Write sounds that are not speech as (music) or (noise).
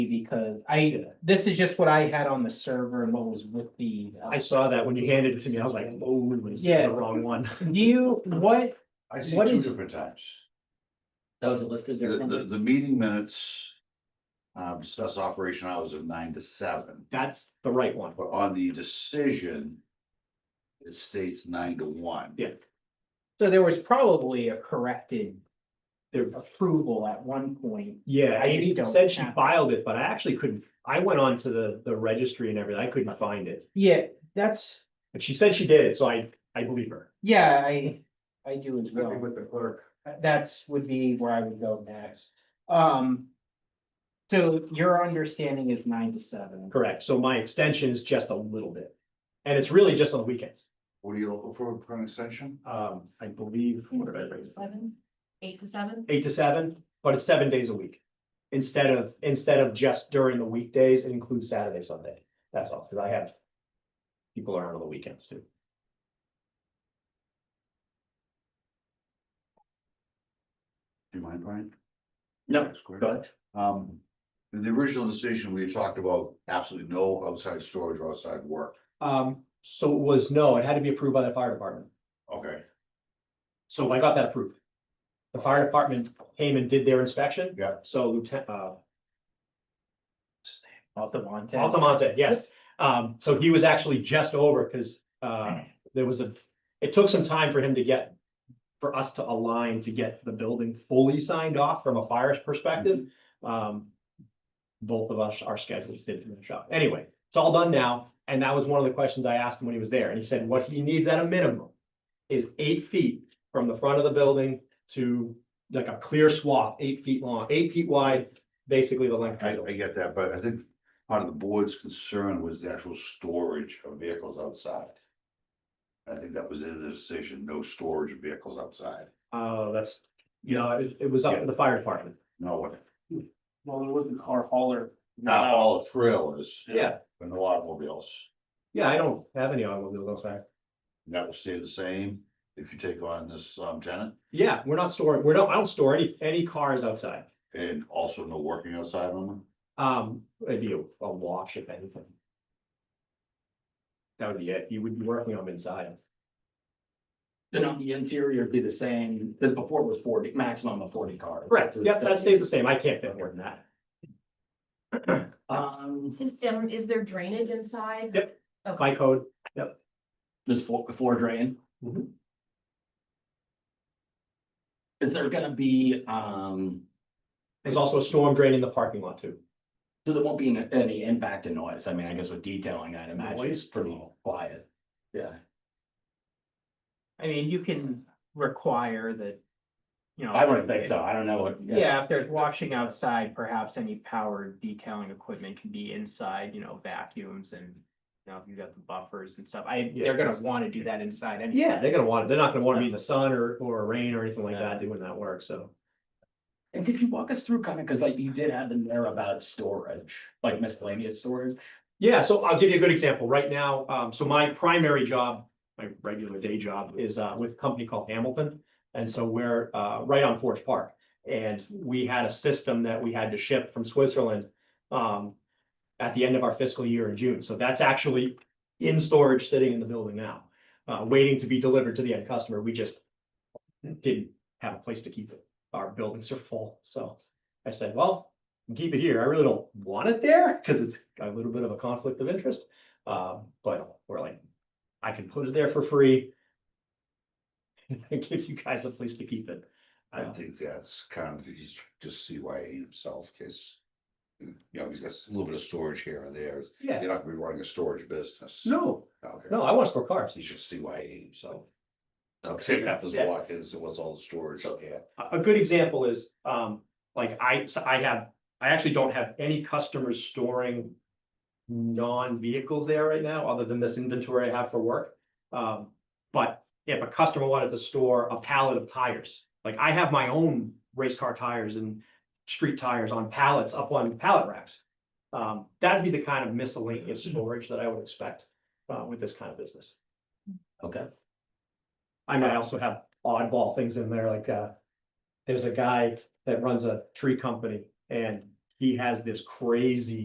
because I, this is just what I had on the server and what was with the. uh, I saw that when you handed it to me, I was like, oh, it was Yeah. the wrong one. Do (laughs) you, what, I see What two is- different times. That was listed The, the, differently. the meeting minutes. Um, discuss operation hours of nine to seven, That's the right one. but on the decision. It states nine to one. Yeah. so there was probably a corrected There, approval at one point. yeah, I Amy just don't said she have- filed it, but I actually couldn't, I went on to the, the registry and everything. I couldn't find it. Yeah, that's, But she said she did it, so I, I believe her. yeah, I, I do as well. Uh, the clerk. That's would be where I would go next. Um. So your understanding is nine to seven. Correct. So my extension is just a little bit. And it's really just on the weekends. What are you looking for for an extension? Um, I believe, what did I write? Seven, eight to seven? Eight to seven, but it's seven days a week. Instead of, instead of just during the weekdays, it includes Saturday, Sunday. That's all, because I have people around on the weekends too. Do you mind, Brian? No, That's great. go ahead. Um, in the original decision, we had talked about absolutely no outside storage or outside work. Um, so it was, no, it had to be approved by the fire department. Okay, So I got that approved. The fire department came and did their inspection. Yeah. So Lieutenant, uh, Altamonte. Altamonte, yes. Um, so he was actually just over because, uh, there was a, it took some time for him to get, for us to align to get the building fully signed off from a fire's perspective. Um, both of us, our schedules did finish up. Anyway, it's all done now. And that was one of the questions I asked him when he was there. And he said what he needs at a minimum is eight feet from the front of the building to like a clear swath, eight feet long, eight feet wide, basically the length. of the I, building. I get that, but I think part of the board's concern was the actual storage of vehicles outside. I think that was in the decision, no storage of vehicles outside. Oh, that's, you know, it, it was up to the fire department. No, what- Well, there was the car hauler. not all trailers. Yeah. But no automobiles. Yeah, I don't have any automobiles outside. And That will stay the same if you take on this um tenant Yeah, we're not storing, we're not, I don't store any, any cars outside. and also no working outside on them. Um, it'd be a, a wash if anything. That would be it. You would be working on inside. Then on the interior it'd be the same, because before it was forty, maximum of forty cars. Yep, that stays the same. I can't fit more than that. Um, Is, um, is there drainage inside? Yep. By code, this floor, floor drain. Mhm. Is there gonna be, um, there's also a storm drain in the parking lot too. so there won't be n- any impact to noise? I mean, I guess with detailing, I'd imagine it's Noise? pretty quiet. Yeah. I mean, you can require that. You know. I wouldn't think so. I don't know what. Yeah, if they're washing outside, perhaps any power detailing equipment can be inside, you know, vacuums and. You know, if you've got the buffers and stuff, I, they're gonna wanna do that inside anyway. Yeah, they're gonna want it. They're not gonna want to be in the sun or, or rain or anything like that doing that work, so. And could you walk us through kind of, because like you did have in there about storage, like miscellaneous storage? Yeah, so I'll give you a good example. Right now, um, so my primary job, my regular day job is, uh, with a company called Hamilton. And so we're, uh, right on Forest Park. And we had a system that we had to ship from Switzerland, um, at the end of our fiscal year in June. So that's actually in storage, sitting in the building now, uh, waiting to be delivered to the end customer. We just didn't have a place to keep it. Our buildings are full. So I said, well, and keep it here. I really don't want it there because it's a little bit of a conflict of interest. Um, but we're like, I can put it there for free. (laughs) And give you guys a place to keep it. Uh, I think that's kind of, he's just CYA himself, cause. You know, he's got a little bit of storage here and there. Yeah. You're not gonna be running a storage business. No, Okay. no, I want to store cars. He's just CYA himself. Take that as Yeah. walk is, what's all the storage up here? A, a good example is, um, like I, so I have, I actually don't have any customers storing non-vehicles there right now, other than this inventory I have for work. Um, but if a customer wanted to store a pallet of tires, like I have my own race car tires and street tires on pallets up on pallet racks. Um, that'd be the kind of miscellaneous storage that I would expect, uh, with this kind of business. Okay. I mean, I also have oddball things in there, like, uh, there's a guy that runs a tree company and he has this crazy